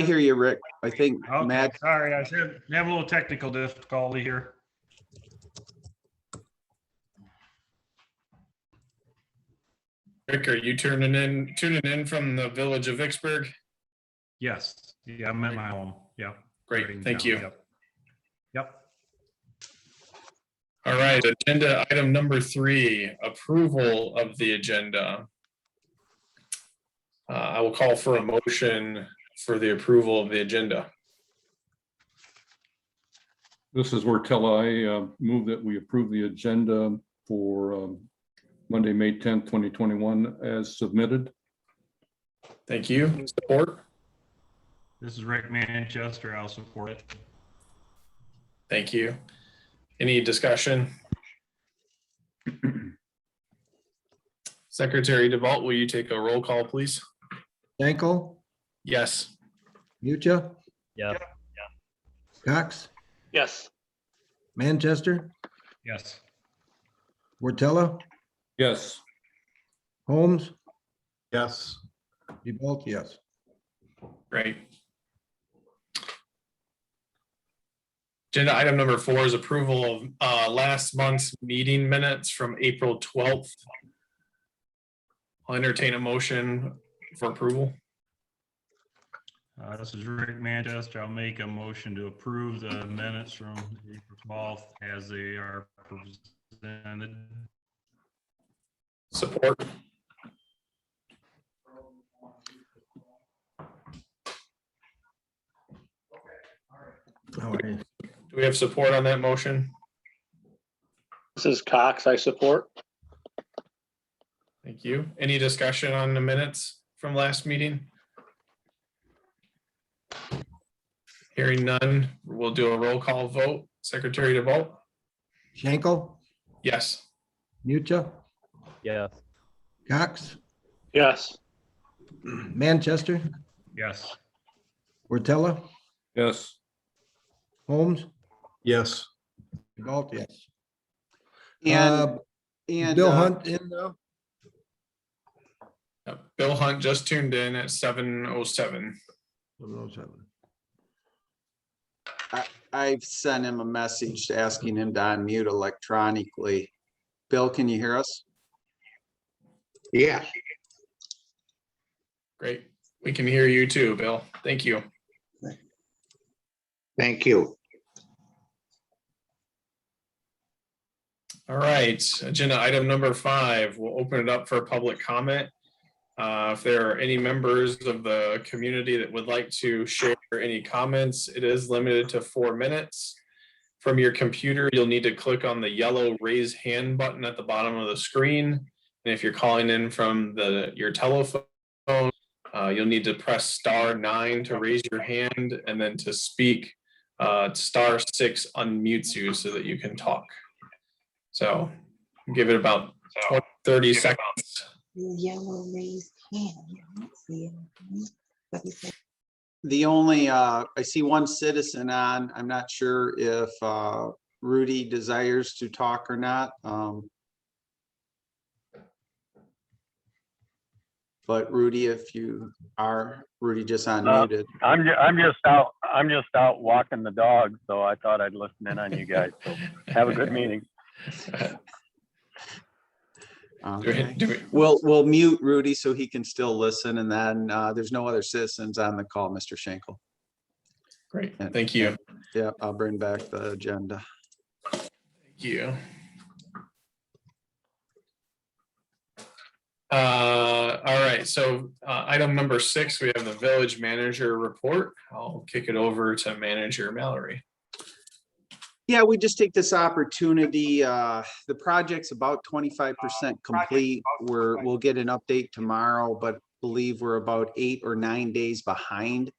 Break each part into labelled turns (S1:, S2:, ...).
S1: I hear you, Rick. I think
S2: Okay,
S1: Max,
S2: sorry, I was having having a little technical difficulty here.
S3: Rick, are you turning in, tuning in from the village of Vicksburg?
S2: Yes, yeah, I'm at my home, yeah.
S3: Great, thank you.
S2: Yep. Yep,
S3: All right, agenda item number three, approval of the agenda. Uh, I will call for a motion for the approval of the agenda.
S4: This is Wortella. I uh, move that we approve the agenda for um, Monday, May 10th, 2021 as submitted.
S3: Thank you. Support?
S2: this is Rick Manchester, I'll support it.
S3: Thank you. Any discussion? Secretary DeVault, will you take a roll call, please?
S5: Dankel,
S3: Yes.
S5: Mucha,
S6: Yeah.
S5: Cox,
S6: Yes.
S5: Manchester,
S2: Yes,
S5: Wortella,
S4: Yes,
S5: Holmes. Yes. DeBolt, yes.
S3: Right. Agenda item number four is approval of uh, last month's meeting minutes from April twelfth. I'll entertain a motion for approval.
S2: uh, this is Rick Manchester, I'll make a motion to approve the minutes from April twelfth as they are presented.
S3: Support.
S5: All right.
S3: Do we have support on that motion?
S6: This is Cox, I support.
S3: Thank you. Any discussion on the minutes from last meeting? Hearing none, we'll do a roll call vote. Secretary DeVault?
S5: Dankel,
S3: Yes.
S5: Mucha,
S6: Yes.
S5: Cox,
S6: Yes.
S5: Manchester,
S2: Yes,
S5: Wortella,
S4: yes,
S5: Holmes. Yes. DeBolt, yes.
S1: and,
S5: Uh,
S1: and.
S5: Bill
S1: uh,
S5: Hunt in though?
S3: Uh, Bill Hunt just tuned in at seven oh seven.
S5: Uh,
S1: I've sent him a message asking him to unmute electronically. Bill, can you hear us?
S7: Yeah,
S3: Great. We can hear you too, Bill. Thank you.
S7: thank you.
S3: All right, agenda item number five, we'll open it up for public comment. Uh, If there are any members of the community that would like to share any comments, it is limited to four minutes. From your computer, you'll need to click on the yellow raise hand button at the bottom of the screen. And if you're calling in from the, your telephone, uh, you'll need to press star nine to raise your hand and then to speak. uh, Star six unmutes you so that you can talk. So give it about 20, 30 seconds.
S8: Yellow raised hand. I don't see it. But he said,
S1: The only, uh, I see one citizen on. I'm not sure if, uh, Rudy desires to talk or not. Um. But Rudy, if you are, Rudy just unmuted.
S9: I'm, ju- I'm just out, I'm just out walking the dog, so I thought I'd listen in on you guys. So Have a good meeting.
S3: Do we-
S1: Okay.
S3: do we-
S1: We'll, we'll mute Rudy so he can still listen and then, uh, there's no other citizens on the call, Mr. Schenkel.
S3: Great, thank you.
S1: Yeah, I'll bring back the agenda.
S3: Thank you. Uh, all right, so uh, item number six, we have the village manager report. I'll kick it over to manager Mallory.
S1: Yeah, we just take this opportunity, uh, the project's about twenty-five percent complete. We're, we'll get an update tomorrow, but believe we're about eight or nine days behind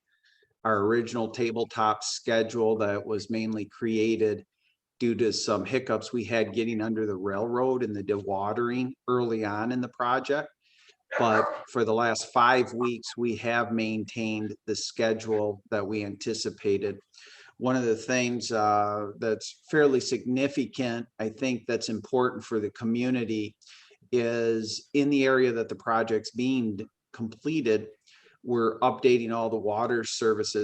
S1: our original tabletop schedule that was mainly created due to some hiccups we had getting under the railroad and the dewatering early on in the project. But for the last five weeks, we have maintained the schedule that we anticipated one of the things uh, that's fairly significant, I think that's important for the community is in the area that the project's being completed, we're updating all the water services